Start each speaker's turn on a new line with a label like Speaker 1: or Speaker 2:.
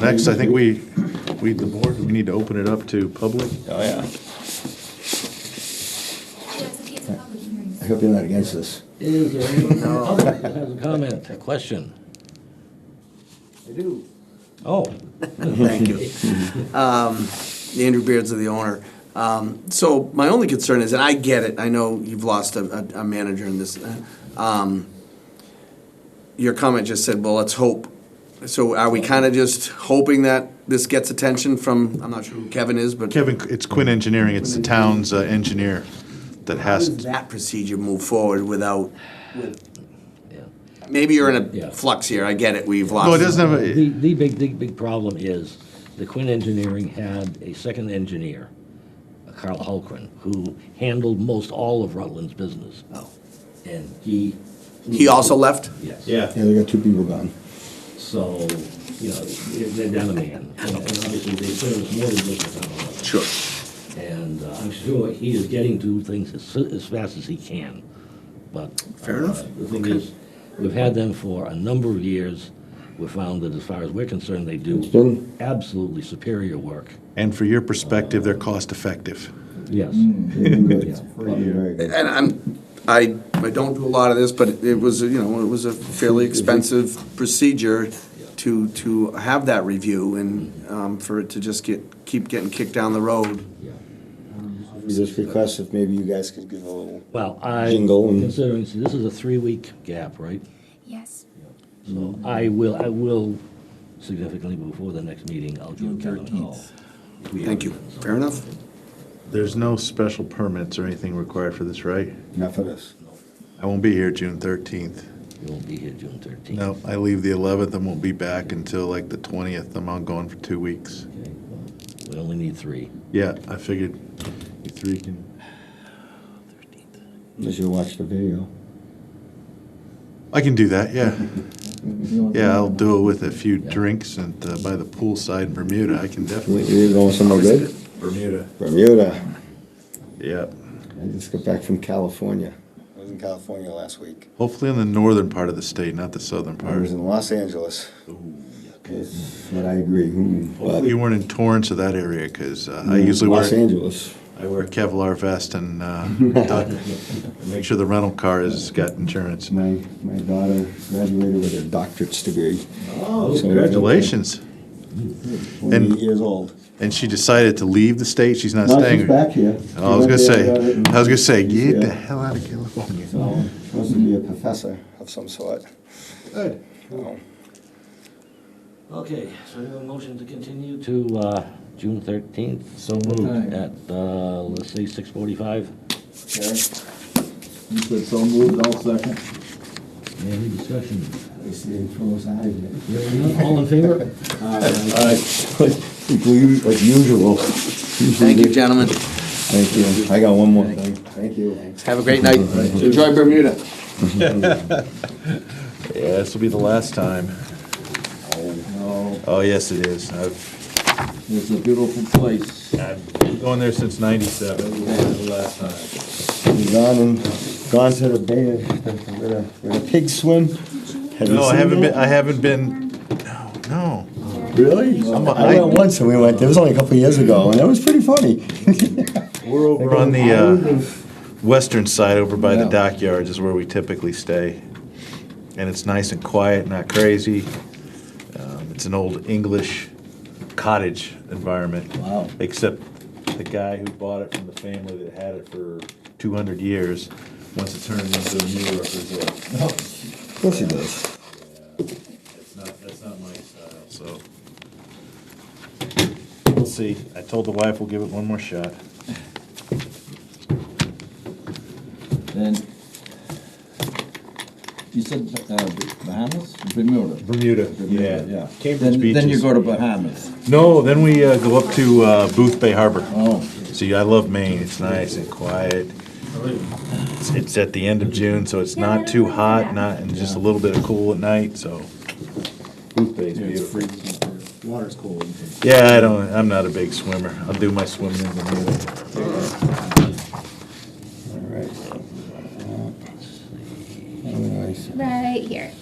Speaker 1: Next, I think we, we, the board, we need to open it up to public.
Speaker 2: Oh, yeah.
Speaker 3: Yes, it's a public hearing.
Speaker 4: I hope you're not against this.
Speaker 5: Is there anyone in the public that has a comment?
Speaker 6: A question?
Speaker 5: I do.
Speaker 6: Oh,
Speaker 7: Thank
Speaker 1: Mm-hmm.
Speaker 7: you. Um, Andrew Beards of the owner. Um, So my only concern is, and I get it, I know you've lost a, a- a manager in this. uh, um, Your comment just said, well, let's hope. So are we kind of just hoping that this gets attention from, I'm not sure who Kevin is, but
Speaker 1: Kevin, it's Quinn Engineering, it's the town's uh, engineer that
Speaker 7: how does
Speaker 1: has,
Speaker 7: that procedure move forward without,
Speaker 6: yeah.
Speaker 7: maybe you're in
Speaker 6: Yeah.
Speaker 7: a flux here, I get it, we've lost.
Speaker 1: no, it doesn't have, a
Speaker 6: The, the big, big, big problem is the Quinn Engineering had a second engineer, Carl Holgren, who handled most all of Rutland's business.
Speaker 7: Oh.
Speaker 6: And he.
Speaker 7: He also left?
Speaker 6: Yes.
Speaker 2: Yeah.
Speaker 4: Yeah, we got two people gone.
Speaker 6: So, you know, they're down a man. And and obviously, they service more than just the town of Rutland.
Speaker 7: Sure.
Speaker 6: And uh, I'm sure he is getting to things as, so- as fast as he can, but.
Speaker 7: Fair enough.
Speaker 6: uh, The thing is, we've had them for a number of years. We found that as far as we're concerned, they do
Speaker 4: been-
Speaker 6: absolutely superior work.
Speaker 1: and for your perspective, they're cost-effective.
Speaker 4: Mm.
Speaker 6: Yes.
Speaker 4: It's pretty very good.
Speaker 7: And I'm, I, I don't do a lot of this, but it was, you know, it was a fairly expensive procedure to, to have that review and, um, for it to just get, keep getting kicked down the road.
Speaker 6: Yeah.
Speaker 4: We Just request if maybe you guys could give a little.
Speaker 6: Well, I,
Speaker 4: Jingle and-
Speaker 6: considering, see, this is a three-week gap, right?
Speaker 3: Yes.
Speaker 7: Mm.
Speaker 6: So I will, I will significantly before the next meeting, I'll give Kevin a call. If we
Speaker 7: Thank you.
Speaker 6: haven't done
Speaker 7: Fair enough?
Speaker 1: There's no special permits or anything required for this, right?
Speaker 4: Enough of this.
Speaker 1: I won't be here June 13th.
Speaker 6: something. You won't be here June thirteenth.
Speaker 1: No, I leave the 11th and won't be back until like the 20th. I'm on going for two weeks.
Speaker 6: We only need three.
Speaker 1: Yeah, I figured you three can,
Speaker 4: Unless you watch the video.
Speaker 1: I can do that, yeah. Yeah, I'll do it with a few drinks and uh, by the poolside in Bermuda. I can
Speaker 4: You-
Speaker 1: definitely.
Speaker 4: You're going somewhere good?
Speaker 1: Bermuda.
Speaker 4: Bermuda.
Speaker 1: Yeah.
Speaker 4: I just got back from California. I was in California last week.
Speaker 1: Hopefully in the northern part of the state, not the southern
Speaker 4: I
Speaker 1: part.
Speaker 4: was in Los Angeles. Yes, But I agree. hmm,
Speaker 1: Hopefully
Speaker 4: but-
Speaker 1: You weren't in Torrance or that area, because I usually
Speaker 4: Mm-hmm. Los
Speaker 1: wear,
Speaker 4: Angeles.
Speaker 1: I wear Kevlar vest and uh, duck- make sure the rental car has got insurance.
Speaker 4: My, my daughter graduated with her doctorate's degree.
Speaker 2: Oh,
Speaker 4: So-
Speaker 1: Congratulations. And-
Speaker 4: Forty-eight years old.
Speaker 1: And she decided to leave the state, she's not
Speaker 4: No, she's
Speaker 1: staying.
Speaker 4: back here.
Speaker 1: I was
Speaker 4: She
Speaker 1: gonna
Speaker 4: went
Speaker 1: say,
Speaker 4: there, uh, got it, and-
Speaker 1: I was gonna say, get the
Speaker 4: Yeah.
Speaker 1: hell out of California.
Speaker 4: So, supposed to be a professor of some sort.
Speaker 2: Good.
Speaker 4: Oh,
Speaker 6: Okay, so we have a motion to continue to uh, June thirteenth
Speaker 1: So moved.
Speaker 5: Aye.
Speaker 6: at, uh, let's say, six forty-five.
Speaker 5: Okay. You said so moved, I'll second.
Speaker 6: Any discussion?
Speaker 4: I see it froze out of it.
Speaker 6: Hearing none, All in favor?
Speaker 4: Like usual.
Speaker 7: Thank you, gentlemen.
Speaker 4: Thank you. I got one more thing. Thank you.
Speaker 7: Have a great night. Enjoy Bermuda.
Speaker 1: Yeah, this will be the last time.
Speaker 5: No,
Speaker 1: Oh, yes, it is. I've,
Speaker 5: it's a beautiful place.
Speaker 1: I've been going there since ninety-seven. The last time.
Speaker 4: Gone and, gone to the bay, where the, where the pigs swim. Have you
Speaker 1: No, I
Speaker 4: seen
Speaker 1: haven't
Speaker 4: that?
Speaker 1: been, I haven't been, no, no.
Speaker 4: Really?
Speaker 1: I'm a-
Speaker 4: I went once and we went, it was only a couple of years ago and it was pretty funny.
Speaker 1: We're over on the uh, western side, over by the dockyards is where we typically stay. And it's nice and quiet, not crazy. Um, It's an old English cottage environment.
Speaker 4: Wow.
Speaker 1: Except the guy who bought it from the family that had it for 200 years wants to turn it into a New York resort.
Speaker 4: Of course he does.
Speaker 1: That's not, that's not my style, so. We'll see. I told the wife we'll give it one more shot.
Speaker 5: And you said uh, Bahamas, Bermuda?
Speaker 1: Bermuda,
Speaker 5: Bermuda,
Speaker 1: yeah.
Speaker 5: yeah.
Speaker 1: Cambridge
Speaker 5: Then-
Speaker 1: Beach
Speaker 5: Then you
Speaker 1: is-
Speaker 5: go to Bahamas.
Speaker 1: No, then we uh, go up to uh, Booth Bay Harbor.
Speaker 5: Oh.
Speaker 1: See, I love Maine. It's nice and quiet. It's, it's at the end of June, so it's not too hot, not and just a little bit of cool at night. So Booth Bay is beautiful.
Speaker 2: Water's cold.
Speaker 1: Yeah, I don't. I'm not a big swimmer. I'll do my swimming in Bermuda.
Speaker 4: All right. uh,
Speaker 3: Right here.